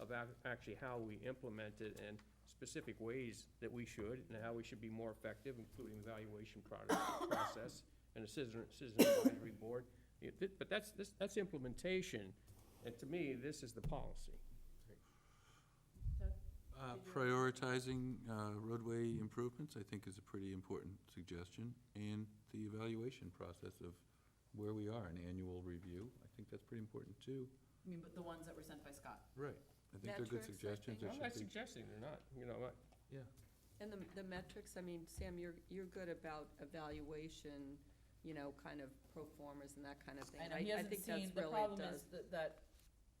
of ac- actually how we implement it and specific ways that we should and how we should be more effective, including evaluation product, process and a citizen, citizen advisory board. It- thi- But that's, this, that's implementation, and to me, this is the policy. Uh, Prioritizing uh, roadway improvements, I think, is a pretty important suggestion, and the evaluation process of where we are, an annual review, I think that's pretty important, too. I mean, but the ones that were sent by Scott. Right. I think they're good Metrics, I suggestions, think. I'm they not should be, suggesting they're not, you know, I- yeah. And the, the metrics, I mean, Sam, you're, you're good about evaluation, you know, kind of pro formas and that kind of thing. I know, he hasn't think that's seen, the really problem does- is that, that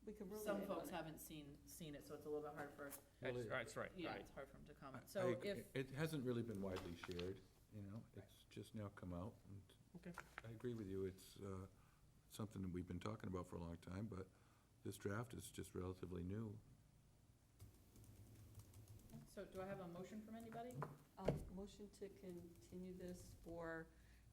We could ruin some it on folks it. haven't seen, seen it, so it's a little bit hard for, Well, that's, it- that's right, yeah, right. it's hard for him to I- comment. I So agree. if, It hasn't really been widely shared, you know, it's just now come out, and Okay. I agree with you, it's uh, something that we've been talking about for a long time, but this draft is just relatively new. so do I have a motion from anybody? I'll Um, motion to continue this for,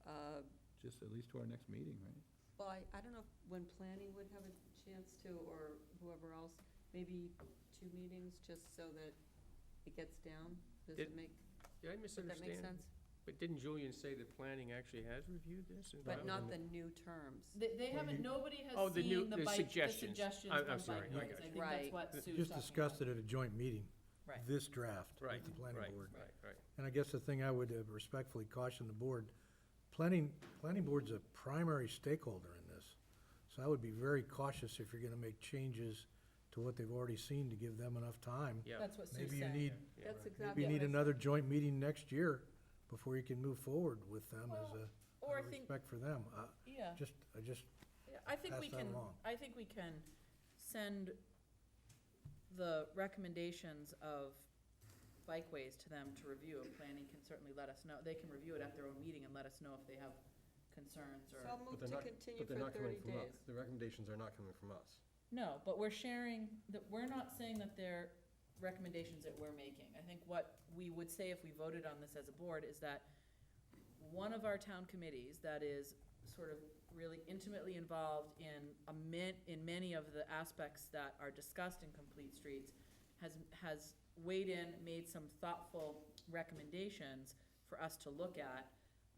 uh, Just at least to our next meeting, right? well, I, I don't know if when planning would have a chance to, or whoever else, maybe two meetings, just so that it gets down. Does it Did- make, Did I does that make misunderstand? sense? But didn't Julian say that planning actually has reviewed this? and But not found- the new terms. They, they haven't, nobody Oh, has the new- seen the the bike, the suggestions. suggestions I'm- I'm from sorry, bike I got lanes. I you. think that's Right. what Sue's talking Just about. discussed it at a joint meeting, Right. this draft Right, with the right, planning board. Right, right. And I guess the thing I would uh, respectfully caution the board, planning, planning board's a primary stakeholder in this. So I would be very cautious if you're gonna make changes to what they've already seen to give them enough time. Yeah. That's what Sue's saying. Maybe you need, Yeah, That's maybe exactly you what need I said. another joint meeting next year before you can move forward with them as a, Or out I of think, respect for them. Uh, yeah. Just, I just, Yeah, I think we pass that can, along. I think we can send the recommendations of bikeways to them to review, and planning can certainly let us know, they can review it at their own meeting and let us know if they have concerns So I'll or. But move they're to not- continue but they're for not coming thirty from us. days. The recommendations are not coming from us. No, but we're sharing, that, we're not saying that they're recommendations that we're making. I think what we would say if we voted on this as a board is that one of our town committees that is sort of really intimately involved in a min, in many of the aspects that are discussed in Complete Streets has, has weighed in, made some thoughtful recommendations for us to look at.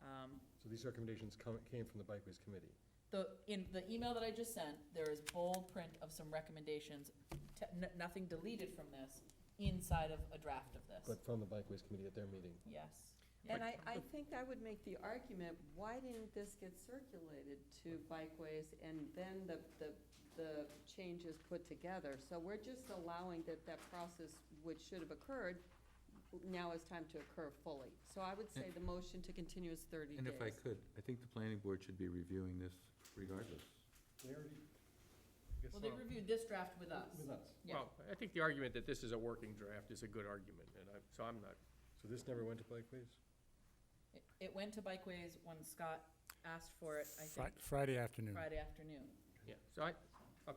Um, So these recommendations come, came from the Bikeways Committee. the, in the email that I just sent, there is bold print of some recommendations, te- n- nothing deleted from this, inside of a draft of this. But from the Bikeways Committee at their meeting. Yes. And I, I think I would make the argument, why didn't this get circulated to bikeways and then the, the, the changes put together? So we're just allowing that that process, which should have occurred, now is time to occur fully. So I would say the motion to continue is thirty And if I days. could, I think the planning board should be reviewing this regardless. They already. Well, they reviewed this draft with us. With us. Yeah. Well, I think the argument that this is a working draft is a good argument, and I, so I'm not, So this never went to Bikeways? It- It went to Bikeways when Scott asked for it, I Fri- think, Friday afternoon. Friday afternoon. yeah, so I, I-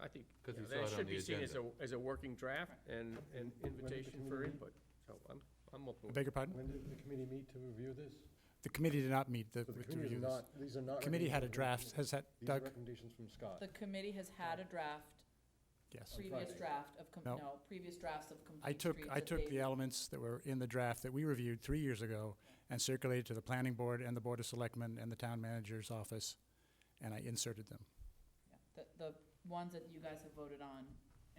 I think, 'Cause yeah, we saw it that on should the be seen as a, as a working draft and an When did the invitation for committee meet? input, so I'm, I'm open. with Beg your pardon? When did the committee meet to review this? The committee did not meet the, So the to committee review is this. not, these are not. Committee had a draft, recommendations from- has that, These are Doug? recommendations from The Scott. committee has had a draft, Yes. previous Friday. draft of, com- No. no, previous drafts of I complete streets. took, I that took they- the elements that were in the draft that we reviewed three years ago and circulated to the planning board and the board of selectmen and the town manager's office, and I inserted them, yeah, The, the ones that you guys have voted on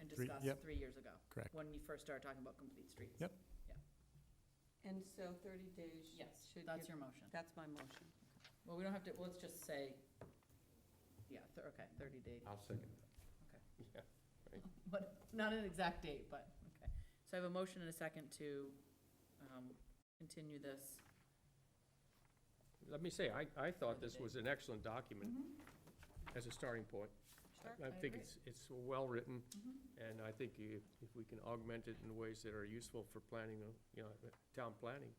and Three- discussed yep. three years ago. correct? When you first started talking about complete streets. Yep. And so thirty days Yes, should that's give, your motion. that's my motion. Well, we don't have to, let's just say, yeah, thir- okay, thirty day, I'll second you. Yeah. but not an exact date, but, okay. So I have a motion and a second to, um, continue this. Let me say, I, I thought this was an excellent document as a starting point. Sure. I I think agree. it's, it's well-written, Mhm. and I think if, if we can augment it in ways that are useful for planning, uh, you know, town planning,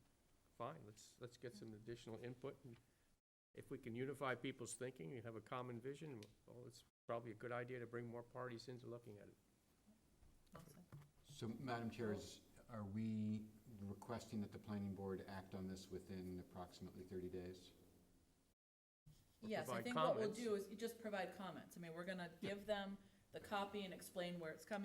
fine, let's, let's get some additional input. and If we can unify people's thinking and have a common vision, well, it's probably a good idea to bring more parties into looking at it. So, Madam Chair, is, are we requesting that the planning board act on this within approximately thirty days? Or Yes, I provide think what we'll comments. do is you just provide comments. I mean, we're gonna give them the copy and explain where it's coming